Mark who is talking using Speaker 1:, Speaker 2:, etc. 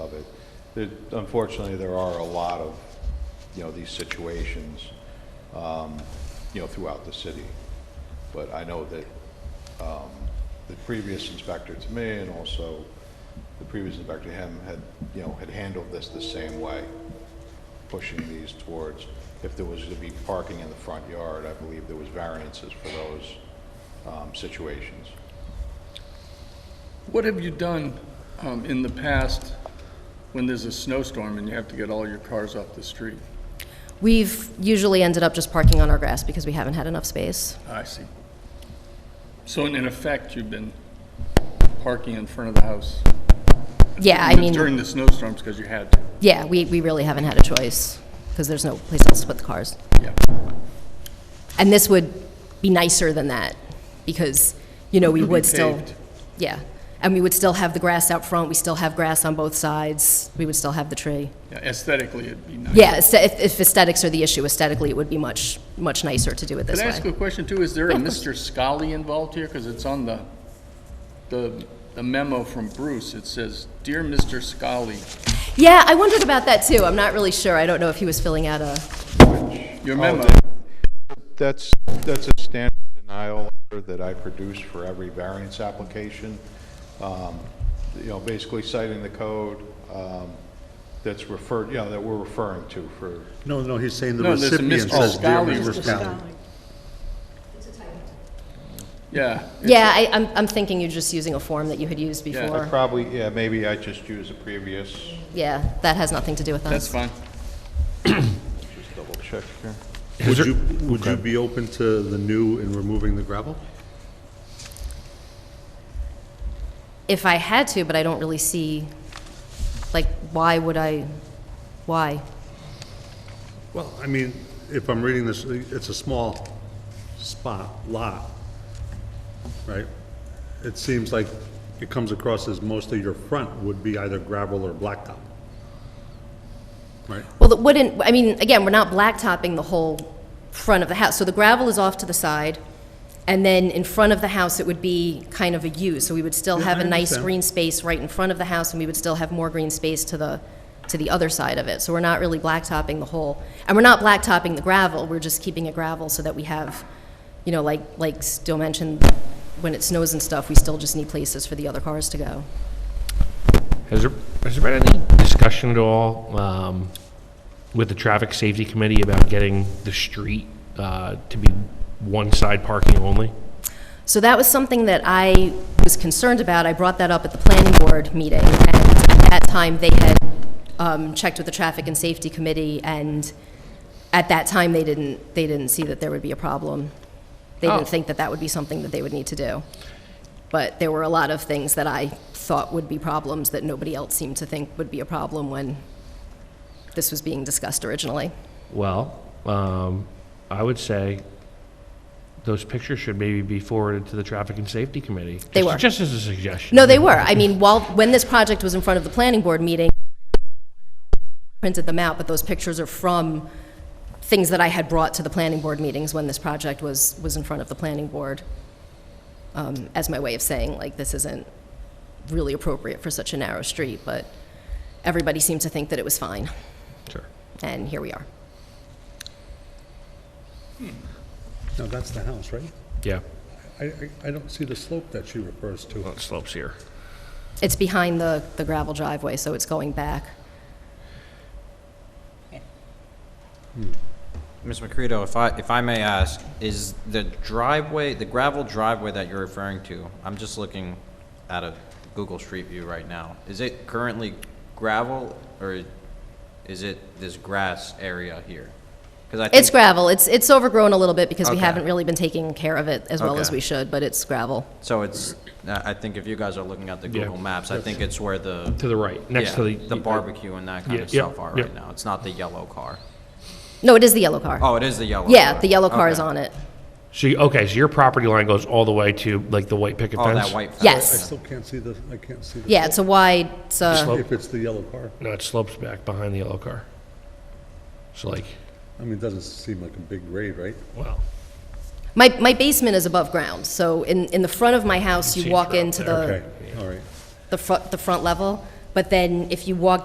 Speaker 1: There- Unfortunately, there are a lot of, you know, these situations, um, you know, throughout the city. But I know that um, the previous inspector to me and also the previous inspector to him had, you know, had handled this the same way, pushing these towards, if there was to be parking in the front yard, I believe there was variances for those um, situations.
Speaker 2: What have you done um, in the past when there's a snowstorm and you have to get all your cars off the street?
Speaker 3: We've usually ended up just parking on our grass because we haven't had enough space.
Speaker 2: Ah, I see. So in in effect, you've been parking in front of the house?
Speaker 3: Yeah, I mean,
Speaker 2: During the snowstorms because you had to?
Speaker 3: yeah, we, we really haven't had a choice because there's no place else to put the cars.
Speaker 2: Yeah.
Speaker 3: And this would be nicer than that because, you know, we
Speaker 2: It would be
Speaker 3: would still.
Speaker 2: paved.
Speaker 3: Yeah, and we would still have the grass out front, we still have grass on both sides, we would still have the tree.
Speaker 2: Yeah, Aesthetically, it'd be nice.
Speaker 3: Yeah, aesthe- if if aesthetics are the issue, aesthetically, it would be much, much nicer to do it this
Speaker 2: Can I
Speaker 3: way.
Speaker 2: ask a question too? Is there a Mr. Scully involved here? Because it's on the, the the memo from Bruce. It says, "Dear Mr. Scully,
Speaker 3: Yeah, I wondered about that too, I'm not really sure, I don't know if he was filling out a,
Speaker 2: your
Speaker 1: Oh,
Speaker 2: memo."
Speaker 1: that- That's, that's a standard denial letter that I produce for every variance application. Um, You know, basically citing the code um, that's referred, you know, that we're referring to for,
Speaker 4: No, no, he's saying the
Speaker 2: No, there's a
Speaker 4: recipient
Speaker 2: Mr.
Speaker 4: says, "Dear
Speaker 2: Scally."
Speaker 4: Mr. Scally."
Speaker 2: Yeah.
Speaker 3: yeah, I, I'm, I'm thinking you're just using a form that you had used
Speaker 1: I
Speaker 2: Yeah.
Speaker 3: before.
Speaker 1: probably, yeah, maybe I just use a previous,
Speaker 3: Yeah, that has nothing to do with us.
Speaker 2: That's fine.
Speaker 1: just double check here.
Speaker 4: Would you, would you be open to the new and removing the gravel?
Speaker 3: If I had to, but I don't really see, like, why would I, why?
Speaker 4: Well, I mean, if I'm reading this, it's a small spot, lot, right? It seems like it comes across as mostly your front would be either gravel or blacktop. Right?
Speaker 3: Well, it wouldn't, I mean, again, we're not blacktopping the whole front of the house. So the gravel is off to the side, and then in front of the house, it would be kind of a U. So we would still
Speaker 4: Yeah,
Speaker 3: have
Speaker 4: I
Speaker 3: a nice
Speaker 4: understand.
Speaker 3: green space right in front of the house, and we would still have more green space to the, to the other side of it. So we're not really blacktopping the whole, and we're not blacktopping the gravel, we're just keeping it gravel so that we have, you know, like, like still mentioned, when it snows and stuff, we still just need places for the other cars to go.
Speaker 5: Has there, has there been any discussion at all um, with the Traffic Safety Committee about getting the street uh, to be one-side parking only?
Speaker 3: So that was something that I was concerned about. I brought that up at the planning board meeting, and at that time, they had um, checked with the Traffic and Safety Committee, and at that time, they didn't, they didn't see that there would be a problem. They
Speaker 5: Oh.
Speaker 3: didn't think that that would be something that they would need to do. But there were a lot of things that I thought would be problems that nobody else seemed to think would be a problem when this was being discussed originally.
Speaker 5: Well, um, I would say those pictures should maybe be forwarded to the Traffic and Safety Committee.
Speaker 3: They
Speaker 5: Just-
Speaker 3: were.
Speaker 5: Just as a suggestion.
Speaker 3: No, they were. I mean, while, when this project was in front of the planning board meeting, printed them out, but those pictures are from things that I had brought to the planning board meetings when this project was, was in front of the planning board, um, as my way of saying, like, this isn't really appropriate for such a narrow street, but everybody seemed to think that it was fine,
Speaker 5: Sure.
Speaker 3: and here we are.
Speaker 4: No, that's the house, right?
Speaker 5: Yeah,
Speaker 4: I, I, I don't see the slope that she refers to.
Speaker 5: well, it slopes here.
Speaker 3: It's behind the, the gravel driveway, so it's going back.
Speaker 6: Ms. McCready, if I, if I may ask, is the driveway, the gravel driveway that you're referring to, I'm just looking at a Google Street View right now, is it currently gravel, or is it this grass area here? 'Cause I
Speaker 3: It's
Speaker 6: think-
Speaker 3: gravel. It's, it's overgrown a little bit because we
Speaker 6: Okay.
Speaker 3: haven't really been taking care of it as well as
Speaker 6: Okay.
Speaker 3: we should, but it's gravel.
Speaker 6: So it's, I I think if you guys are looking at the
Speaker 5: Yeah.
Speaker 6: Google Maps, I think it's where the,
Speaker 5: To the right, next
Speaker 6: yeah,
Speaker 5: to the. uh,
Speaker 6: the barbecue and that kind
Speaker 5: Yeah,
Speaker 6: of
Speaker 5: yeah,
Speaker 6: stuff are
Speaker 5: yeah.
Speaker 6: right now. It's not the yellow car.
Speaker 3: No, it is the yellow car.
Speaker 6: Oh, it is the yellow.
Speaker 3: yeah,
Speaker 6: car.
Speaker 3: the yellow car is
Speaker 6: Okay.
Speaker 3: on it.
Speaker 5: So, you- okay, so your property line goes all the way to like the white picket fence?
Speaker 6: Oh, that white fence.
Speaker 4: I
Speaker 3: Yes.
Speaker 4: still can't see the, I can't see the.
Speaker 3: Yeah, it's a wide. It's a,
Speaker 5: slope.
Speaker 4: If it's the yellow car.
Speaker 5: No, it slopes back behind the yellow car. So like,
Speaker 4: I mean, it doesn't seem like a big grade, right?
Speaker 5: wow.
Speaker 3: my my basement is above ground, so in in the front of my house,
Speaker 5: You
Speaker 3: you
Speaker 6: Oh,
Speaker 5: see
Speaker 3: walk
Speaker 5: throughout
Speaker 3: into
Speaker 5: there.
Speaker 3: the
Speaker 4: Okay, all right.
Speaker 3: the front the front level, but then if you walk